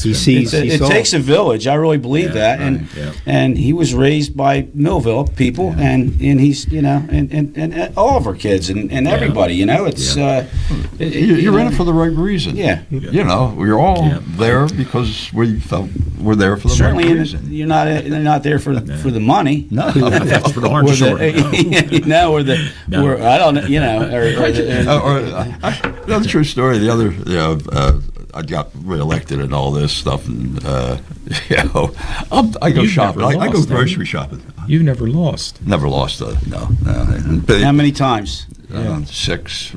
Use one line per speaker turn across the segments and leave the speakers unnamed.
he sees.
It,
he
it
saw.
takes a village. I really believe
Yeah,
that, and
right, yeah.
and he was raised by Millville people,
Yeah.
and and he's you know, and and, and, and all of our kids and, and everybody, you know, it's
Yeah.
uh, it-
You- You're in
know,
it for the right reason.
Yeah.
You know, we're all
Yeah.
there because we felt we're there for the
certainly
right
in
reason.
you're not you're not there for for the money.
No, that's for the horn
Or
short.
the, you know, or the,
No.
or I don't know, you know, or, or the,
Uh, or, uh, I- another true story. The other, you know, uh, I got reelected and all this stuff, and uh, you know, I'm, I go
You've
shopping. I,
never
I go
lost, have
grocery
you?
shopping.
You've never lost.
Never lost a no. no. But
how many times?
uh, six.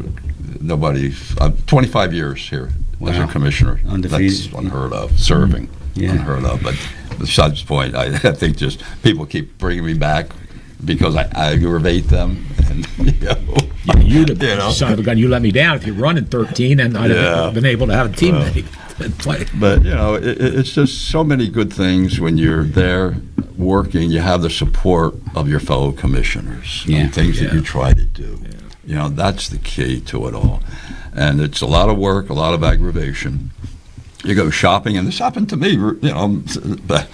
Nobody. Uh, Twenty-five years here as
Wow.
a commissioner.
Undefeated.
That's unheard of. Serving.
Yeah.
Unheard of. But besides the point, I, I think just people keep bringing me back because I, I aggravate them, and you know,
You, you, the
You know.
son of a gun, you let me down. If you run in 13, and I'd
Yeah.
have been able to have a teammate to play.
But you know, it, it- it's just so many good things when you're there working. You have the support of your fellow commissioners. on
Yeah.
things that you
Yeah.
try to do. You know, that's the key to it all. And it's a lot of work, a lot of aggravation. You go shopping, and this happened to me. You know, I'm, but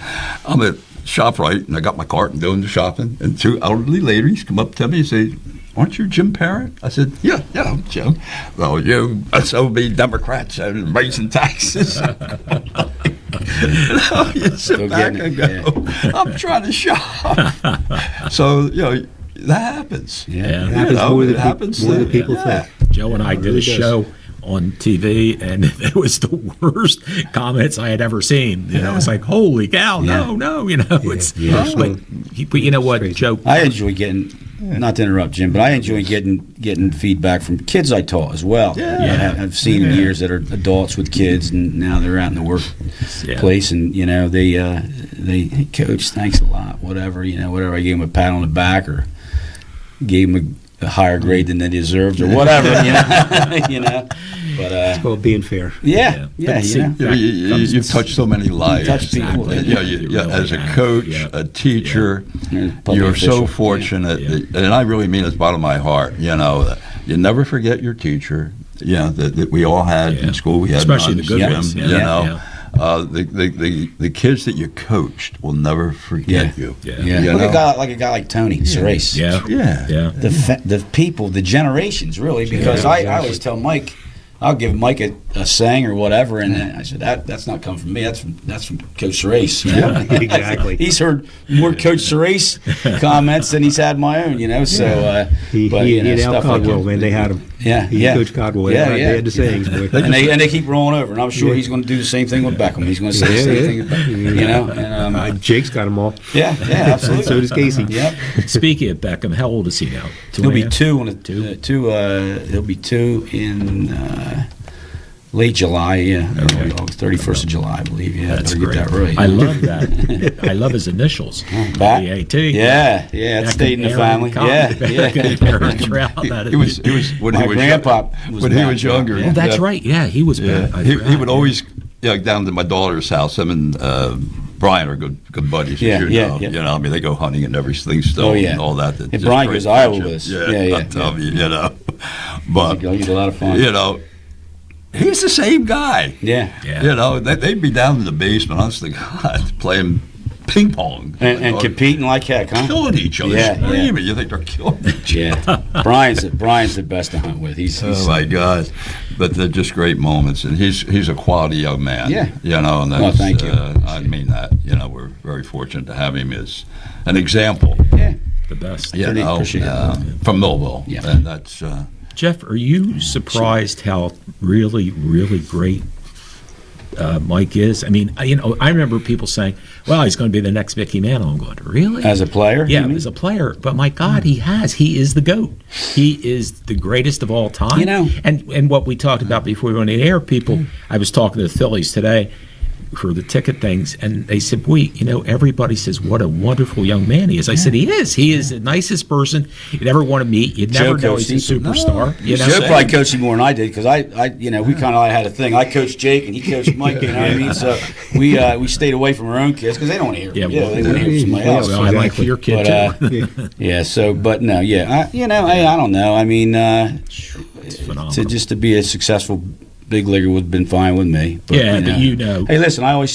I'm at Shoprite, and I got my cart and doing the shopping, and two elderly ladies come up to me and say. Aren't you Jim Parrott? I said, Yeah, yeah, I'm Jim. Well, you SOB Democrats and raising taxes. No,
Still
you sit back
getting
and
it,
go, I'm trying to shop. so, you know, that happens.
Yeah.
It happens
You know,
more than
it happens
peop- more than
to-
people
yeah.
think.
Joe and I did a
really does.
show on TV, and it was the worst comments I had ever seen. You know, it's like, holy cow, no, no, you know, it's. Oh,
yeah, so-
But, you- but you know what, Joe?
I enjoy getting, not to interrupt Jim, but I enjoy getting getting feedback from kids I taught as well.
Yeah.
I have, I've seen years that are adults with kids, and now they're out in the workplace, and you know they uh, they hey, coach, thanks a lot, whatever, you know, whatever. I gave them a pat on the back or gave them a, a higher grade than they deserved or whatever, you know, you know. But uh,
Well, being fair.
yeah, yeah,
But
you
see,
know.
You, know, you, you, you've touched so many lives.
touch people.
And, you know, you-
Exactly.
yeah, as a
Yeah.
coach,
Yeah.
a teacher,
Yeah. Public
you're
official.
so fortunate.
Yeah.
that- and I really mean it bottom of my heart. You know, that you never forget your teacher. You know that, that we all had
Yeah.
in school. We had
Especially the
nuns,
good
you
ones,
know,
yeah.
You
Yeah.
know.
Yeah.
Uh, the, the, the, the kids that you coached will never forget
Yeah.
you.
Yeah.
Yeah,
You
look at a
know?
guy like a guy like Tony Cerace.
Yeah.
Yeah.
Yeah.
the fa- the people, the generations, really. Because
Yeah,
I, I always tell Mike, I'll give Mike a, a saying or whatever, and then I said that that's not coming from me. That's from that's from Coach Serace. you know?
Exactly.
he's heard more Coach Serace comments than he's had my own. You know, so uh,
He,
but,
he,
you know,
he and Al
stuff like
Codwell,
that.
man, they had him.
Yeah,
He
yeah.
and Coach Codwell,
Yeah,
yeah,
yeah.
they had the sayings. Boy.
and they, and they keep rolling over, and I'm sure he's going to do the same thing with Beckham. He's going to say the
Yeah,
same
yeah.
thing, with Beckham, you know. And,
Uh,
um,
Jake's got them all.
yeah, yeah, absolutely.
so does Casey.
Yep.
Speaking of Beckham, how old is he now? Two
He'll
and a
be
half?
two on a,
Two?
two. Uh, two uh, he'll be two in uh, late July. Yeah,
Okay.
thirty first of July, I believe. Yeah,
That's
better
great.
get that right.
I love that. I love his initials.
Bat.
BAT.
Yeah, yeah, it
Beckham,
stayed in the
Aaron
family.
Cotton,
Yeah,
Beckham,
yeah.
Aaron Trout, that
He was, he was when
My
he was
grandpa was
when he
back
was
then.
younger.
Oh,
Oh, that's
yeah.
right. Yeah, he was.
Yeah,
bad. I
he, he
forgot.
would always yeah down to my daughter's house. Him and uh, Brian are good good buddies.
Yeah,
as you
yeah,
know.
yeah.
You know, I mean, they go hunting and everything still.
Oh, yeah.
and all that. That's
And
just
Brian
great
goes to Iowa
friendship.
with us. Yeah, yeah,
I tell
yeah.
you, you know, but
He's a lot of fun.
you know, he's the same guy.
yeah.
Yeah.
You know, they, they'd be down in the basement, honest to God, playing ping pong
And, and
Or
competing like heck, huh?
killing each other,
Yeah, yeah.
screaming. You think they're killing each other?
Yeah, Brian's the, Brian's the best to hunt with. He's, he's
Oh my God! But they're just great moments, and he's he's a quality young man.
Yeah.
you know, and
Oh,
that's,
thank you.
Uh, I mean that. You know, we're very fortunate to have him as an example.
yeah.
the best.
You
Pretty
know,
appreciative.
uh, from Millville.
Yeah.
and that's uh,
Jeff, are you surprised how really, really great uh, Mike is? I mean, I- you know, I remember people saying, "Well, he's going to be the next Mickey Mantle." I'm going, "Really?"
As a player, you
yeah,
mean?
as a player. But my God, he has. He is the goat. He is the greatest of all time.
You know.
and and what we talked about before we went in air, people. I was talking to the Phillies today for the ticket things, and they said, "We, you know, everybody says what a wonderful young man he is." I said, "He is. He is the nicest person you'd ever want to meet. You'd
Joe
never know
coached
he's a
him.
superstar." you know,
Joe probably coached him more than I did because I, I, you know, we kind of had a thing. I coached Jake and he coached Mike. You know what I mean? So we uh, we stayed away from our own kids because they don't want to hear.
Yeah,
Yeah,
well,
they want to hear from somebody
yeah,
else.
well, I like
Exactly.
your kid too.
But, uh, yeah. So, but no, yeah, I, you know, I, I don't know. I mean, uh,
it's phenomenal.
to just to be a successful big leaguer would have been fine with me.
Yeah, but you know.
Hey, listen, I always